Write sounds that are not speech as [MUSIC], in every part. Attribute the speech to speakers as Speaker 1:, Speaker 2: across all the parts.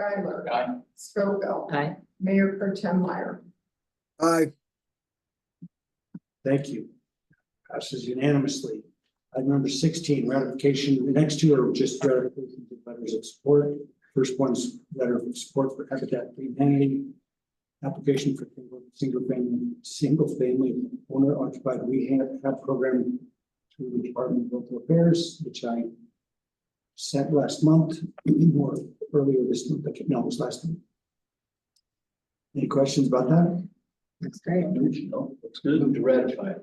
Speaker 1: Skylar.
Speaker 2: Aye.
Speaker 1: Scoville.
Speaker 3: Aye.
Speaker 1: Mayor Pro Tem Meyer.
Speaker 4: Aye.
Speaker 5: Thank you. Passes unanimously. Item number sixteen, ratification, the next two are just ratifications of letters of support. First one's letter of support for Habitat for Humanity. Application for single family, single family owner occupied rehab hab program through the Department of Local Affairs, which I sent last month or earlier this month, but no, it was last month. Any questions about that?
Speaker 3: That's great.
Speaker 5: No.
Speaker 2: Looks good. Move to ratify.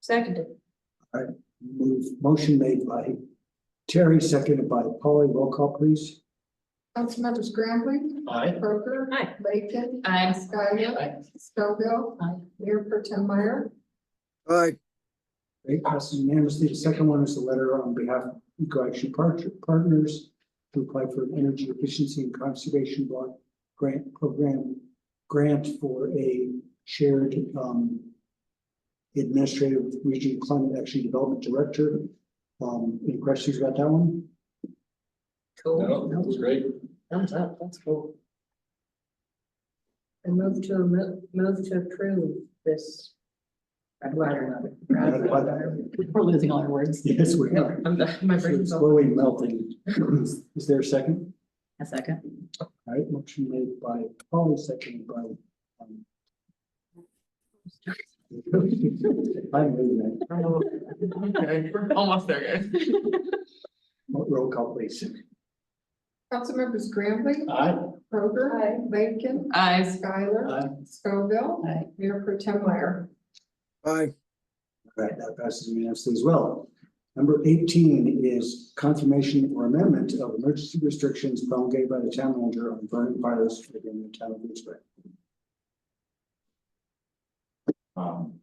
Speaker 3: Seconded.
Speaker 5: Move, motion made by Terry, seconded by Polly. Roll call, please.
Speaker 1: Councilmembers Graham,
Speaker 2: Aye.
Speaker 1: Parker.
Speaker 3: Aye.
Speaker 1: Lakin.
Speaker 3: Aye.
Speaker 1: Skylar.
Speaker 2: Aye.
Speaker 1: Scoville.
Speaker 3: Aye.
Speaker 1: Mayor Pro Tem Meyer.
Speaker 4: Aye.
Speaker 5: Great, passes unanimously. The second one is the letter on behalf of Eco Action Part- Partners to apply for an energy efficiency and conservation block grant program, grant for a shared um, administrative region climate action development director. Um, Any questions about that one?
Speaker 2: No, Oh, that was great.
Speaker 3: Thumbs up, that's cool. I move to, amo- move to approve this. I'd rather not.
Speaker 5: I'd rather.
Speaker 3: We're losing all our words.
Speaker 5: Yes, we are.
Speaker 3: I'm done. My brain's
Speaker 5: It's
Speaker 3: all.
Speaker 5: Slowly melting. [CLEARS THROAT] Is there a second?
Speaker 3: A second.
Speaker 5: All right, motion made by Paul, seconded by. um, [LAUGHS] I'm moving that.
Speaker 6: Okay, we're almost there, guys.
Speaker 5: Roll call, please.
Speaker 1: Councilmembers Graham.
Speaker 2: Aye.
Speaker 1: Parker. Lakin.
Speaker 6: Eyes.
Speaker 1: Skylar.
Speaker 5: Aye.
Speaker 1: Scoville.
Speaker 3: Aye.
Speaker 1: Mayor Pro Tem Meyer.
Speaker 4: Aye.
Speaker 5: All right, that passes unanimously as well. Number eighteen is confirmation or amendment of emergency restrictions promulgated by the town manager on burning fires within the town of Lewisburg.
Speaker 2: Um,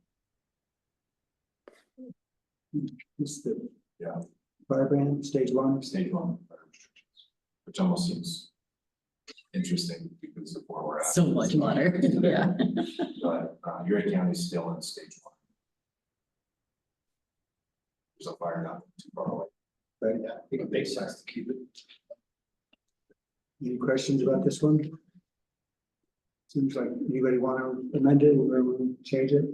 Speaker 5: It's the.
Speaker 2: Yeah.
Speaker 5: Firebrand, stage one.
Speaker 2: stage one. fire restrictions, Which almost seems interesting because of where we're at.
Speaker 3: So much
Speaker 6: [LAUGHS]
Speaker 2: [LAUGHS]
Speaker 3: water, yeah.
Speaker 2: But uh, Erie County's still in stage one. There's a fire not too far away.
Speaker 5: Right.
Speaker 2: Yeah, I think it makes sense to keep it.
Speaker 5: Any questions about this one? Seems like anybody want to amend it or change it?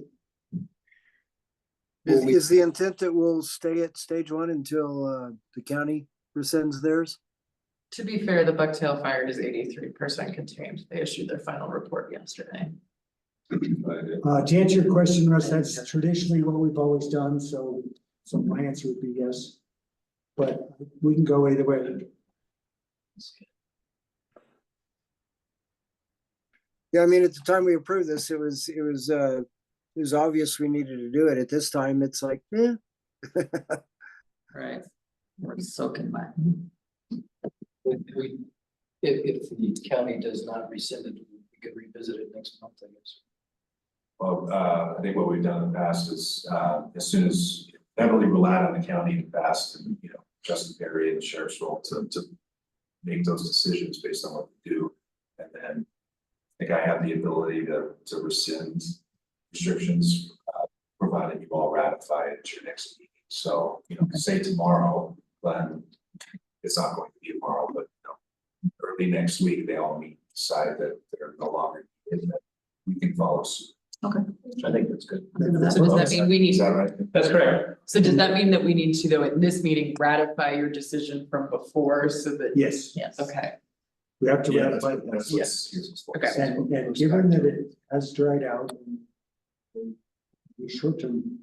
Speaker 4: Is,
Speaker 5: Well, we-
Speaker 4: is the intent that we'll stay at stage one until, uh, the county rescinds theirs?
Speaker 6: To be fair, the Bucktail Fire is eighty-three percent contained. They issued their final report yesterday.
Speaker 2: but it-
Speaker 5: Uh, to answer your question, Russ, that's traditionally what we've always done, so, so my answer would be yes. But we can go either way.
Speaker 4: Yeah, I mean, at the time we approved this, it was, it was, uh, it was obvious we needed to do it. At this time, it's like, eh,
Speaker 3: Right. We're soaking wet.
Speaker 7: We, we, if, if the county does not rescind it, we could revisit it next month, I guess.
Speaker 2: Well, uh, I think what we've done in the past is, uh, as soon as heavily relied on the county in the past, and, you know, Justin Perry and Sheriff's role to, to make those decisions based on what we do. And then I think I have the ability to, to rescind restrictions, uh, provided you all ratify it at your next meeting. So, you know, say tomorrow, then it's not going to be tomorrow, but, you know, early next week, they all meet, decide that they're no longer, in that we can follow suit. I think that's good.
Speaker 3: So does
Speaker 6: So does that mean we
Speaker 2: Is
Speaker 6: need,
Speaker 2: that right?
Speaker 7: That's correct.
Speaker 6: so does that mean that we need to, though, at this meeting, ratify your decision from before so that,
Speaker 5: Yes,
Speaker 3: Yes.
Speaker 6: okay,
Speaker 5: we have to
Speaker 2: Yeah, that's
Speaker 5: ratify
Speaker 2: what- that's
Speaker 5: this.
Speaker 2: what's- here's what's for.
Speaker 6: Okay.
Speaker 5: And, and given that it has dried out. and The short-term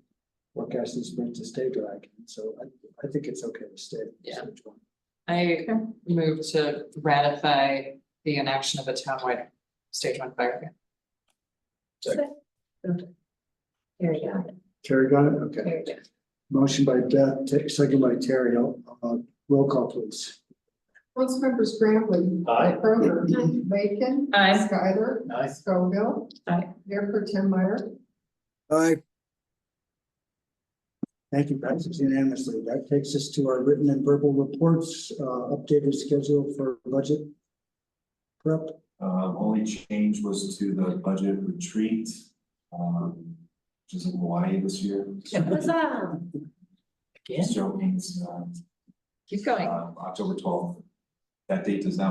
Speaker 5: forecast is meant to stay dry, so I, I think it's okay to stay. at
Speaker 6: Yeah.
Speaker 5: stage one.
Speaker 6: I move to ratify the inaction of a townwide stage one fire.
Speaker 3: There you go.
Speaker 5: Terry got it? Okay.
Speaker 3: There you go.
Speaker 5: Motion by Beth, ta- second by Terry, uh, roll call please.
Speaker 1: Councilmembers Graham.
Speaker 7: Aye.
Speaker 1: Parker. Lakin.
Speaker 3: Aye.
Speaker 1: Skylar.
Speaker 7: Aye.
Speaker 1: Scoville.
Speaker 3: Aye.
Speaker 1: Mayor Pro Tem Meyer.
Speaker 4: aye.
Speaker 5: Thank you, passes unanimously. That takes us to our written and verbal reports, uh, updated schedule for budget. Prep,
Speaker 2: Um, only change was to the budget retreat, um, which is in Hawaii this year.
Speaker 3: Again?
Speaker 2: So it means, uh,
Speaker 3: Keep going.
Speaker 2: um, October twelfth. uh, That date does not